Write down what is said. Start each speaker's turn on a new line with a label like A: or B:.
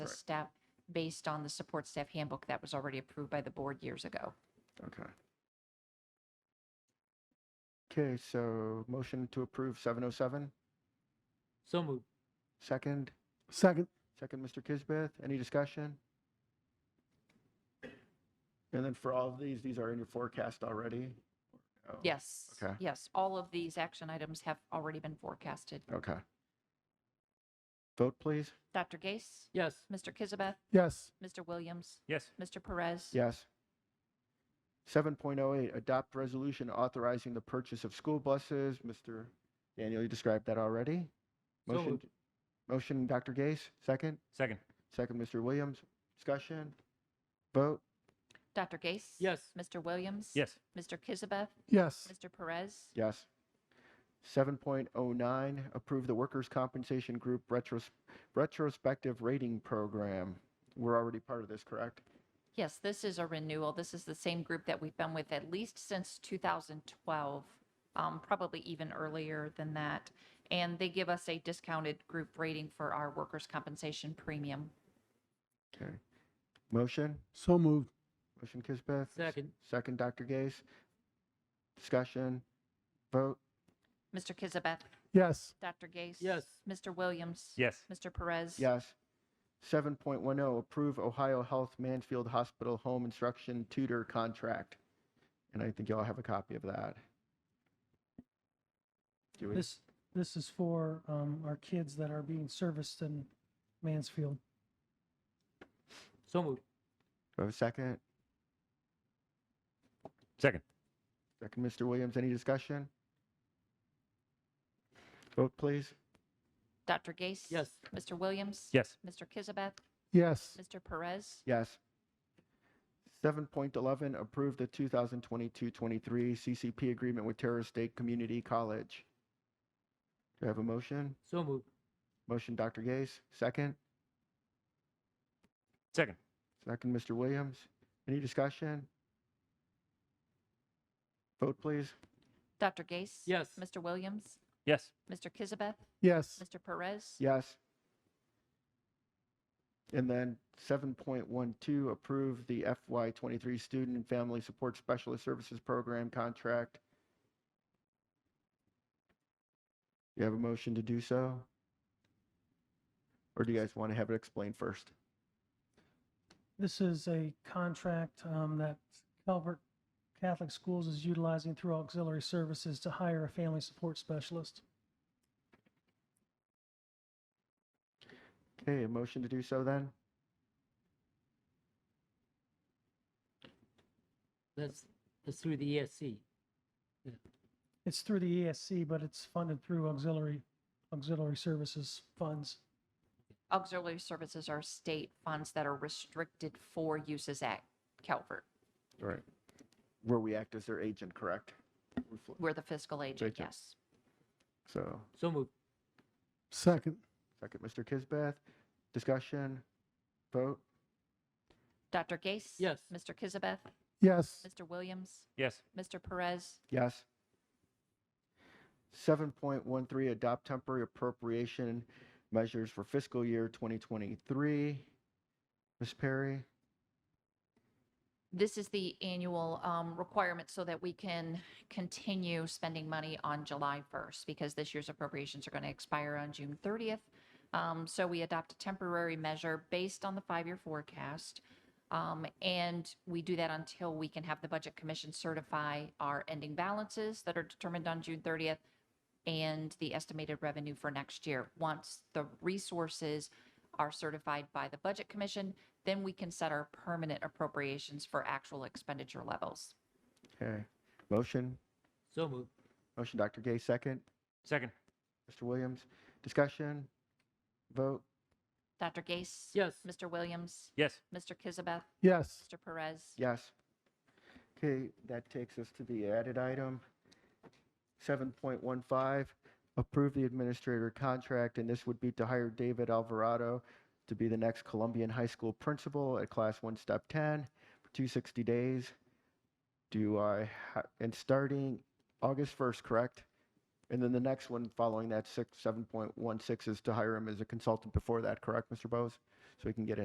A: Correct.
B: step based on the support staff handbook that was already approved by the board years ago.
A: Okay. Okay, so motion to approve 707,
C: So moved.
A: second,
D: Second.
A: second, Mr. Kisbeth, any discussion? And then for all of these, these are in your forecast already? Oh,
B: Yes.
A: Okay.
B: Yes, all of these action items have already been forecasted.
A: Okay. Vote, please.
B: Dr. Gase,
C: Yes.
B: Mr. Kizabeth,
D: Yes.
B: Mr. Williams,
C: Yes.
B: Mr. Perez.
A: Yes. 7.08, adopt resolution authorizing the purchase of school buses. Mr. Daniel, you described that already.
C: So
A: Motion,
C: moved.
A: motion, Dr. Gase, second.
C: Second.
A: Second, Mr. Williams. Discussion? Vote?
B: Dr. Gase.
C: Yes.
B: Mr. Williams.
C: Yes.
B: Mr. Kizabeth,
D: Yes.
B: Mr. Perez.
A: Yes. 7.09, approve the Workers' Compensation Group retros- Retrospective Rating Program. We're already part of this, correct?
B: Yes, this is a renewal. This is the same group that we've been with at least since 2012, um, probably even earlier than that. And they give us a discounted group rating for our workers' compensation premium.
A: Okay. Motion?
D: So moved.
A: Motion Kisbeth. s-
C: Second.
A: Second, Dr. Gase. Discussion, vote,
B: Mr. Kizabeth,
D: Yes.
B: Dr. Gase.
C: Yes.
B: Mr. Williams.
C: Yes.
B: Mr. Perez.
A: yes. 7.10, oh, approve Ohio Health Mansfield Hospital Home Instruction Tutor Contract. And I think y'all have a copy of that. Do we?
E: This, this is for um, our kids that are being serviced in Mansfield.
C: So moved.
A: Do I have a second?
C: Second.
A: Second, Mr. Williams, any discussion? Vote, please.
B: Dr. Gase.
C: Yes.
B: Mr. Williams.
C: Yes.
B: Mr. Kizabeth,
D: Yes.
B: Mr. Perez.
A: Yes. 7.11, approve the 2022-23 CCP agreement with Terror State Community College. Do I have a motion?
C: So moved.
A: Motion, Dr. Gase, second.
C: Second.
A: Second, Mr. Williams. Any discussion? Vote, please.
B: Dr. Gase.
C: Yes.
B: Mr. Williams.
C: Yes.
B: Mr. Kizabeth,
D: Yes.
B: Mr. Perez.
A: Yes. And then 7.12, approve the FY23 Student and Family Support Specialist Services Program contract. You have a motion to do so? Or do you guys want to have it explained first?
E: This is a contract um, that Calvert Catholic Schools is utilizing through auxiliary services to hire a family support specialist.
A: Okay, a motion to do so then?
C: That's, that's through the E ESC.
E: It's through the ESC, but it's funded through auxiliary, auxiliary services funds.
B: Auxiliary services are state funds that are restricted for uses at Calvert.
A: Right. Where we act as their agent, correct? We're fl-
B: We're the fiscal agent,
A: Agent.
B: yes.
A: So,
C: So moved.
D: Second.
A: second, Mr. Kisbeth. Discussion? Vote?
B: Dr. Gase?
C: Yes.
B: Mr. Kizabeth?
D: Yes.
B: Mr. Williams?
C: Yes.
B: Mr. Perez?
A: Yes. 7.13, adopt temporary appropriation measures for fiscal year 2023. Ms. Perry?
B: This is the annual um, requirement so that we can continue spending money on July 1st because this year's appropriations are going to expire on June 30th. Um, So we adopt a temporary measure based on the five-year forecast. Um, And we do that until we can have the Budget Commission certify our ending balances that are determined on June 30th and the estimated revenue for next year. Once the resources are certified by the Budget Commission, then we can set our permanent appropriations for actual expenditure levels.
A: Okay. Motion?
C: So moved.
A: Motion, Dr. Gay, second.
C: Second.
A: Mr. Williams? Discussion? Vote?
B: Dr. Gase?
C: Yes.
B: Mr. Williams?
C: Yes.
B: Mr. Kizabeth?
D: Yes.
B: Mr. Perez?
A: Yes. Okay, that takes us to the added item. 7.15, approve the administrator contract, and this would be to hire David Alvarado to be the next Colombian High School principal at Class 1, Step 10, for 260 days. Do I, ha- and starting August 1st, correct? And then the next one following that, six 7.16, is to hire him as a consultant before that, correct, Mr. Bose? So we can get